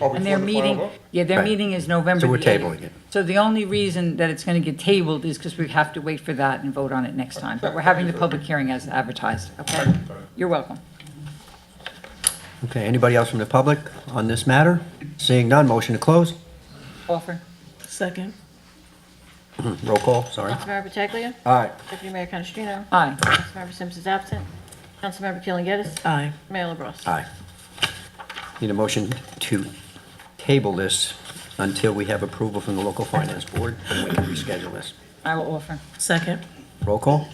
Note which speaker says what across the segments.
Speaker 1: Oh,
Speaker 2: And their
Speaker 1: before the final
Speaker 2: meeting,
Speaker 1: vote?
Speaker 2: yeah, their
Speaker 3: Right.
Speaker 2: meeting is November
Speaker 3: So we're
Speaker 2: the 8th.
Speaker 3: tabling it.
Speaker 2: So the only reason that it's going to get tabled is because we have to wait for that and vote on it next time. But we're having the public hearing as advertised, okay? You're welcome.
Speaker 3: Okay, anybody else from the public on this matter? Seeing none, motion to close?
Speaker 2: Offer?
Speaker 4: Second.
Speaker 3: Roll call, sorry.
Speaker 5: Councilmember Pataglia.
Speaker 3: Aye.
Speaker 5: Deputy Mayor Canestrino.
Speaker 2: Aye.
Speaker 5: Councilmember Sims is absent. Councilmember Keeling Getis.
Speaker 4: Aye.
Speaker 5: Mayor LaBrus.
Speaker 3: Aye. Need a motion to table this until we have approval from the local finance board, and we can reschedule this.
Speaker 2: I will offer.
Speaker 4: Second.
Speaker 3: Roll call?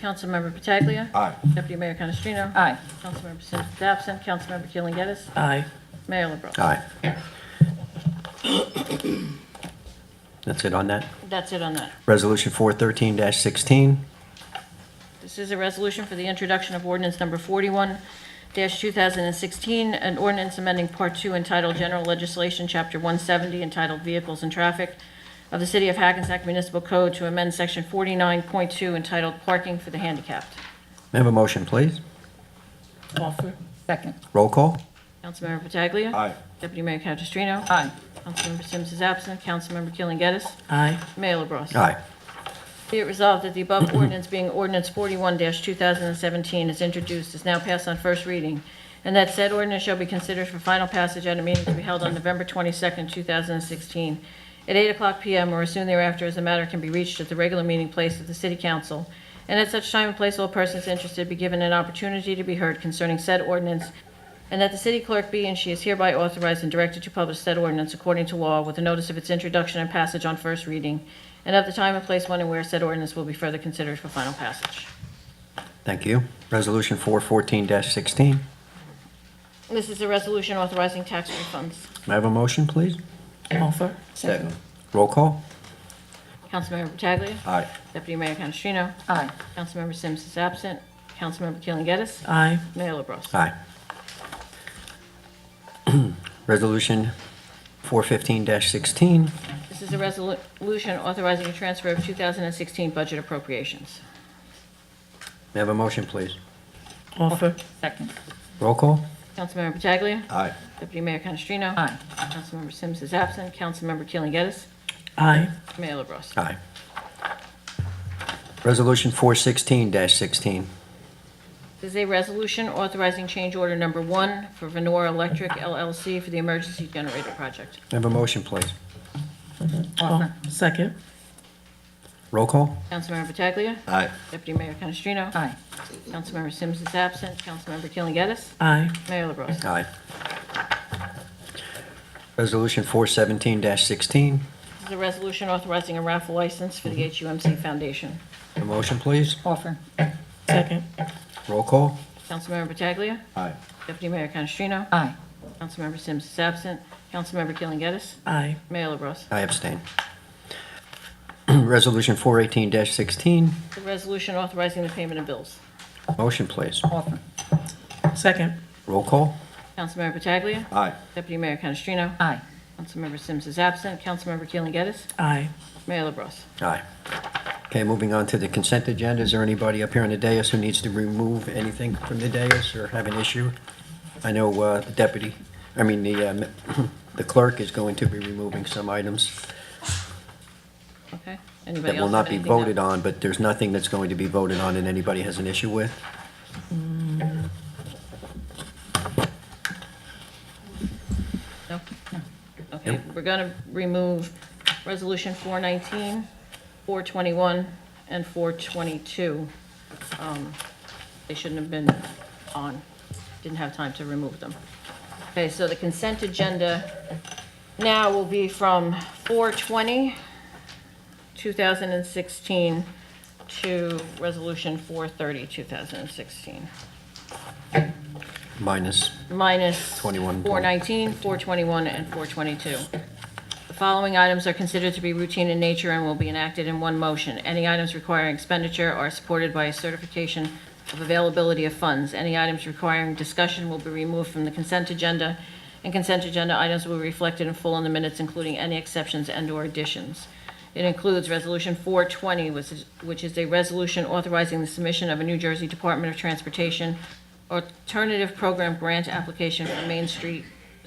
Speaker 5: Councilmember Pataglia.
Speaker 3: Aye.
Speaker 5: Deputy Mayor Canestrino.
Speaker 2: Aye.
Speaker 5: Councilmember Sims is absent. Councilmember Keeling Getis.
Speaker 4: Aye.
Speaker 5: Mayor LaBrus.
Speaker 3: Aye. That's it on that?
Speaker 5: That's it on that.
Speaker 3: Resolution 413-16,
Speaker 5: This is a resolution for the introduction of ordinance number 41-2016, an ordinance amending Part 2 entitled General Legislation, Chapter 170, entitled Vehicles and Traffic of the City of Hackensack Municipal Code to amend Section 49.2 entitled Parking for the Handicapped.
Speaker 3: may I have a motion, please?
Speaker 4: Offer.
Speaker 2: Second.
Speaker 3: Roll call?
Speaker 5: Councilmember Pataglia.
Speaker 1: Aye.
Speaker 5: Deputy Mayor Canestrino.
Speaker 2: Aye.
Speaker 5: Councilmember Sims is absent. Councilmember Keeling Geddes.
Speaker 4: Aye.
Speaker 5: Mayor LaBrus.
Speaker 3: Aye.
Speaker 5: Be it resolved that the above ordinance being ordinance 41-2017 is introduced, is now passed on first reading, and that said ordinance shall be considered for final passage at a meeting to be held on November 22nd, 2016, at 8:00 PM or as soon thereafter as the matter can be reached at the regular meeting place of the City Council, and at such time and place all persons interested be given an opportunity to be heard concerning said ordinance, and that the city clerk be and she is hereby authorized and directed to publish said ordinance according to law with a notice of its introduction and passage on first reading, and of the time and place when and where said ordinance will be further considered for final passage.
Speaker 3: Thank you. Resolution 414-16, may
Speaker 5: This is a resolution authorizing tax refunds.
Speaker 3: I have a motion, please?
Speaker 4: Offer.
Speaker 2: Second.
Speaker 3: Roll call?
Speaker 5: Councilmember Pataglia.
Speaker 3: Aye.
Speaker 5: Deputy Mayor Canestrino.
Speaker 2: Aye.
Speaker 5: Councilmember Sims is absent. Councilmember Keeling Geddes.
Speaker 4: Aye.
Speaker 5: Mayor LaBrus.
Speaker 3: Aye. Resolution 415-16,
Speaker 5: This is a resolution authorizing a transfer of 2016 budget appropriations.
Speaker 3: may I have a motion, please?
Speaker 4: Offer.
Speaker 2: Second.
Speaker 3: Roll call?
Speaker 5: Councilmember Pataglia.
Speaker 3: Aye.
Speaker 5: Deputy Mayor Canestrino.
Speaker 2: Aye.
Speaker 5: Councilmember Sims is absent. Councilmember Keeling Geddes.
Speaker 4: Aye.
Speaker 5: Mayor LaBrus.
Speaker 3: Aye. Resolution 416-16,
Speaker 5: This is a resolution authorizing change order number one for Venora Electric LLC for the emergency generator project.
Speaker 3: may I have a motion, please?
Speaker 4: Oh,
Speaker 2: Offer.
Speaker 4: Second.
Speaker 3: Roll call?
Speaker 5: Councilmember Pataglia.
Speaker 3: Aye.
Speaker 5: Deputy Mayor Canestrino.
Speaker 2: Aye.
Speaker 5: Councilmember Sims is absent. Councilmember Keeling Geddes.
Speaker 4: Aye.
Speaker 5: Mayor LaBrus.
Speaker 3: Aye. Resolution 417-16,
Speaker 5: This is a resolution authorizing a raffle license for the HUMC Foundation.
Speaker 3: a motion, please?
Speaker 2: Offer.
Speaker 4: Second.
Speaker 3: Roll call?
Speaker 5: Councilmember Pataglia.
Speaker 3: Aye.
Speaker 5: Deputy Mayor Canestrino.
Speaker 2: Aye.
Speaker 5: Councilmember Sims is absent. Councilmember Keeling Geddes.
Speaker 4: Aye.
Speaker 5: Mayor LaBrus.
Speaker 3: I abstain. Resolution 418-16,
Speaker 5: The resolution authorizing the payment of bills.
Speaker 3: motion, please?
Speaker 2: Offer.
Speaker 4: Second.
Speaker 3: Roll call?
Speaker 5: Councilmember Pataglia.
Speaker 3: Aye.
Speaker 5: Deputy Mayor Canestrino.
Speaker 2: Aye.
Speaker 5: Councilmember Sims is absent. Councilmember Keeling Geddes.
Speaker 4: Aye.
Speaker 5: Mayor LaBrus.
Speaker 3: Aye. Okay, moving on to the consent agenda. Is there anybody up here on the dais who needs to remove anything from the dais or have an issue? I know uh, the deputy, I mean, the um, the clerk is going to be removing some items
Speaker 5: Okay?
Speaker 3: that
Speaker 5: Anybody
Speaker 3: will
Speaker 5: else
Speaker 3: not
Speaker 5: have
Speaker 3: be
Speaker 5: anything that-
Speaker 3: voted on, but there's nothing that's going to be voted on and anybody has an issue with.
Speaker 5: No? Okay, we're going to remove Resolution 419, 421, and 422. Um, They shouldn't have been on, didn't have time to remove them. Okay, so the consent agenda now will be from 420, 2016, to Resolution 430, 2016
Speaker 3: Minus,
Speaker 5: minus
Speaker 3: 21.
Speaker 5: 419, 421, and 422. The following items are considered to be routine in nature and will be enacted in one motion. Any items requiring expenditure are supported by a certification of availability of funds. Any items requiring discussion will be removed from the consent agenda, and consent agenda items will be reflected in full in the minutes, including any exceptions and/or additions. It includes Resolution 420, which is- which is a resolution authorizing the submission of a New Jersey Department of Transportation Alternative Program Grant Application for Main Street